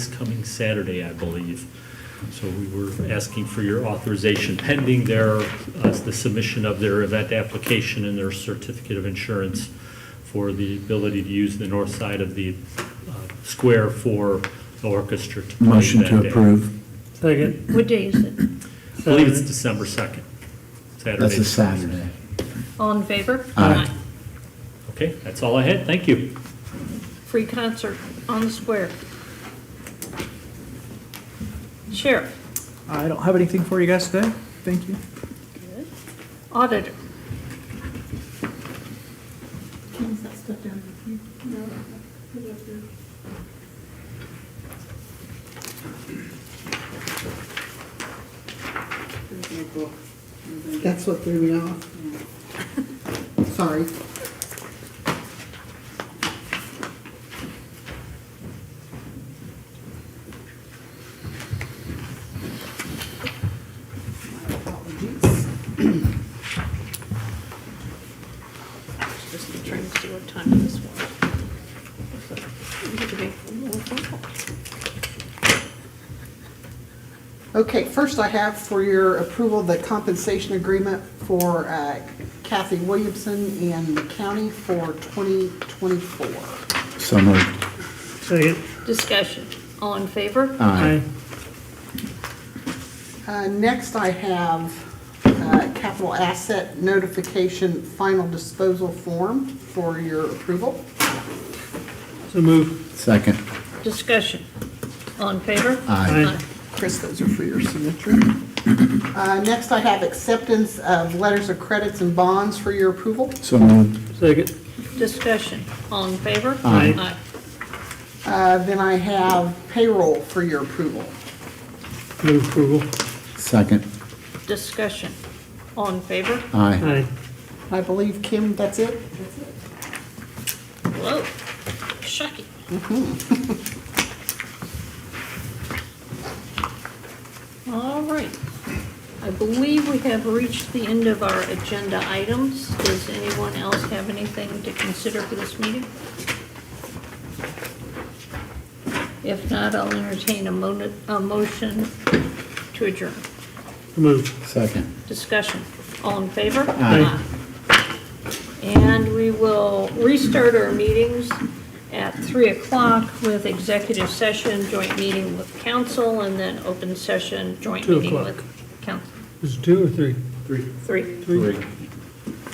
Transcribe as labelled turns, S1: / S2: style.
S1: It's coming Saturday, I believe. So we were asking for your authorization pending their, uh, the submission of their event application and their certificate of insurance for the ability to use the north side of the uh, square for the orchestra to play
S2: Motion
S1: that
S2: to
S1: day.
S2: approve.
S3: Second.
S4: What day is it?
S1: I believe it's December 2nd, Saturday.
S2: That's a Saturday.
S4: All in favor?
S2: Aye.
S1: Okay, that's all I had. Thank you.
S4: Free concert on the square. Sheriff,
S5: I don't have anything for you guys today. Thank you.
S4: auditor,
S6: Is that stuff down here? No. Put it up there. That's what threw me off. Sorry. My apologies.
S4: just trying to see what time this was.
S6: Okay, first I have for your approval the compensation agreement for uh, Kathy Williamson and the county for 2024.
S2: So moved.
S3: Second.
S4: Discussion, all in favor?
S2: Aye.
S6: Uh, Next I have uh, capital asset notification final disposal form for your approval.
S3: So move.
S2: Second.
S4: Discussion, all in favor?
S2: Aye.
S6: Chris, those are for your signature. Uh, Next I have acceptance of letters of credits and bonds for your approval.
S2: So moved.
S3: Second.
S4: Discussion, all in favor?
S3: Aye.
S6: Uh, Then I have payroll for your approval.
S3: Move approval.
S2: Second.
S4: Discussion, all in favor?
S2: Aye.
S3: Aye.
S6: I believe, Kim, that's it?
S4: Whoa, shocking. Mm-hmm. All right. I believe we have reached the end of our agenda items. Does anyone else have anything to consider for this meeting? If not, I'll entertain a mo- a motion to adjourn.
S3: Move.
S2: Second.
S4: Discussion. All in favor?
S2: Aye.
S4: Aye. And we will restart our meetings at 3 o'clock with executive session, joint meeting with council, and then open session, joint
S3: Two
S4: meeting
S3: o'clock.
S4: with council.
S3: Is it two or three?
S4: Three.
S3: Three.